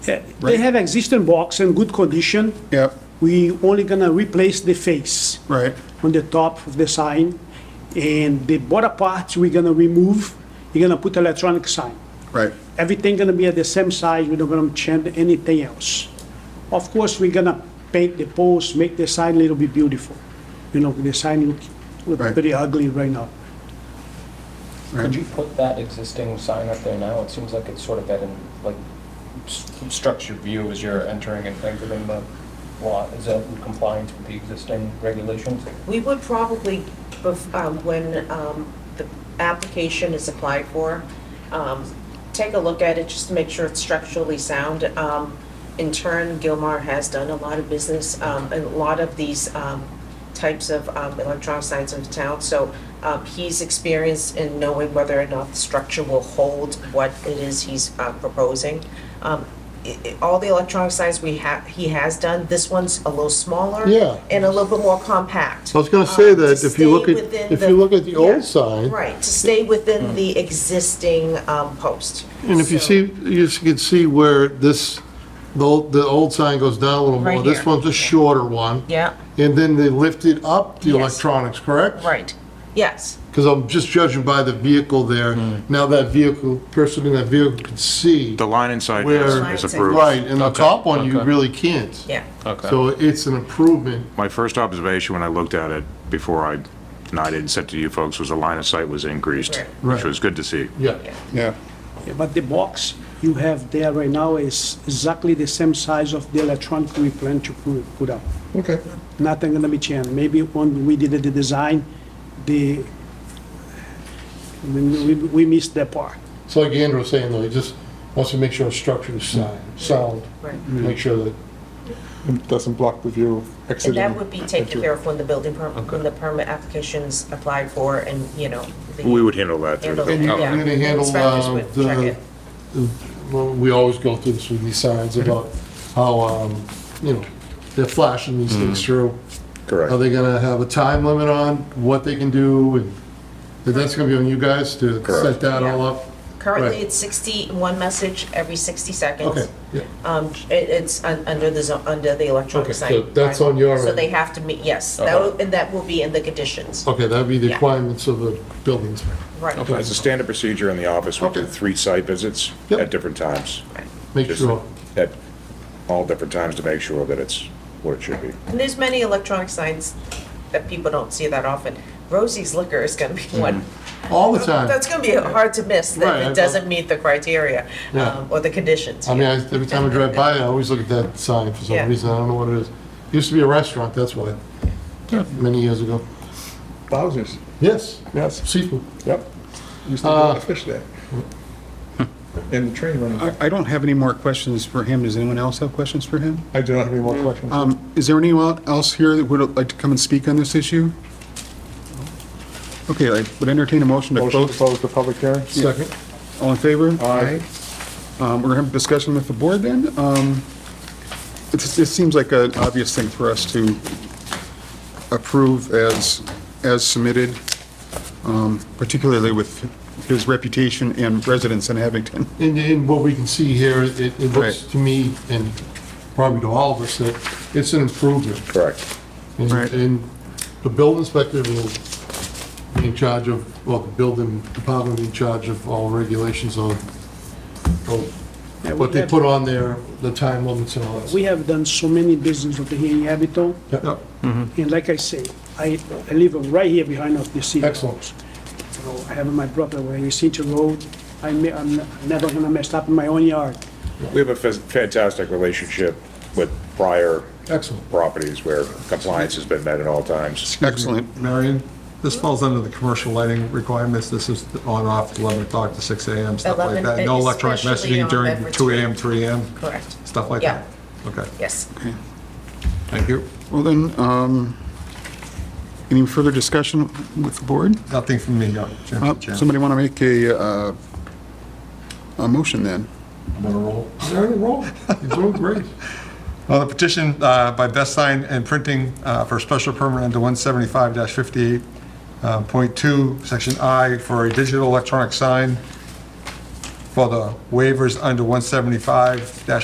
They Right. have existing box in good condition. Yep, We only gonna replace the face right, on the top of the sign, and the bottom parts we're gonna remove. You're gonna put electronic sign. right, Everything gonna be at the same size, we're not gonna change anything else. Of course, we're gonna paint the post, make the sign a little bit beautiful. You know, the sign look, look Right. pretty ugly right now. right. Could you put that existing sign up there now? It seems like it's sort of at an, like, obstructs your view as you're entering and exiting the lot. Is that in compliance with the existing regulations? We would probably, bef- um, when um, the application is applied for, um, take a look at it, just to make sure it's structurally sound. Um, In turn, Gilmar has done a lot of business, um, and a lot of these um, types of um, electronic signs in town. So um, he's experienced in knowing whether or not the structure will hold what it is he's uh, proposing. Um, i- i- All the electronic signs we have, he has done, this one's a little smaller. Yeah. And a little bit more compact. I was gonna say um, to that if you look stay at- within if you look at the old yeah, sign- Mm. Right, to stay within the existing um, post. And if you So- see, you s- can see where this, the old, the old sign goes down a little more. Right This here. one's a shorter one. Yeah, And then they lifted up the Yes. electronics, correct? right, yes, Because I'm just judging by the vehicle there. Hmm. Now that vehicle, person in that vehicle can see. The line inside Where- is is approved. Right, and the top one, you okay. really can't. yeah. So it's an improvement. My first observation when I looked at it before I denied it and said to you folks was the line of sight was increased, Right. which was good to see. Yeah. Yeah, Yeah, But the box you have there right now is exactly the same size of the electronic we plan to pu- put up. okay. Nothing gonna be changed. Maybe when we did the design, the, we, we- we missed that part. It's like Andrew was saying though, he just wants to make sure the structure is sound, sound. Right. Make sure that It doesn't block the view of And exiting. that would be taken care of when the building permit, when the permit application's applied for and, you know. the- We would handle that through handle the it, And you're yeah. gonna handle, Inspectors uh, would the- check it. Well, we always go through this with these signs about how, um, you know, they're flashing these things through. Are Correct. they gonna have a time limit on what they can do, and and that's gonna be on you guys to set that all up? Currently, Right. it's 61 message every 60 seconds. Okay, yeah, Um, it, it's un- under the, zo- under the Okay, electronic so sign. that's on your your. So end. Uh-huh. they have to meet, yes, that will, and that will be in the conditions, okay, that'd be the Yeah. requirements of the building inspector. right. As a standard procedure in the office, we did Okay. three site visits Yep. at different times. Make Just sure, At all different times to make sure that it's what it should be. And there's many electronic signs that people don't see that often. Rosie's Liquor is gonna be one. all the time. That's gonna be hard to miss, Mm-hmm. Right, I that know. it doesn't meet the criteria, Yeah. um, or the conditions. I mean, I- every time I drive by, I always look at that sign for Yeah. some reason, I don't know what it is. Used to be a restaurant, that's why, many years ago. Wowzers, Yes, yes, seafood. yep. Used to go on a fish there. And the train running. I I don't have any more questions for him. Does anyone else have questions for him? I do not have any more questions. Um, Is there anyone else here that would like to come and speak on this issue? Okay, I would entertain a motion to Motion to close. close the public hearing? Second. All in favor? Aye. Um, We're going to have a discussion with the board then. Um, it's- It seems like an obvious thing for us to approve as, as submitted, um, particularly with his reputation and residence in Abington. And, and what we can see here, it, it looks Right. to me, and probably to all of us, that it's an improvement. Correct. And- Right. And the building inspector will be in charge of, well, the building department will be in charge of all regulations on, of Yeah, we what they have- put on there, the time limits and all that. We have done so many business over here in Abington, Yep. and like I say, I, I live right here behind of the city. Excellent. You know, I have my brother where he's into road, I ne- I'm never gonna mess up in my own yard. We have a fa- fantastic relationship with prior Excellent. properties where compliance has been met at all times. Excellent. Marion, this falls under the commercial lighting requirements. This is on/off 11 o'clock to 6 a.m., stuff like 11, that. No electronic especially messaging on during beverage. 2 a.m., 3 a.m., Correct, stuff like Yeah. that. Okay, yes. thank you. Well then, um, any further discussion with the board? Nothing from me, uh, Uh, Mr. Chairman. Somebody want to make a, uh, a motion then? I'm on a roll. You're on a roll. You're doing great. Well, the petition uh, by Best Sign and Printing uh, for special permit under 175-58.2, uh, Section I, for a digital electronic sign for the waivers under 175 dash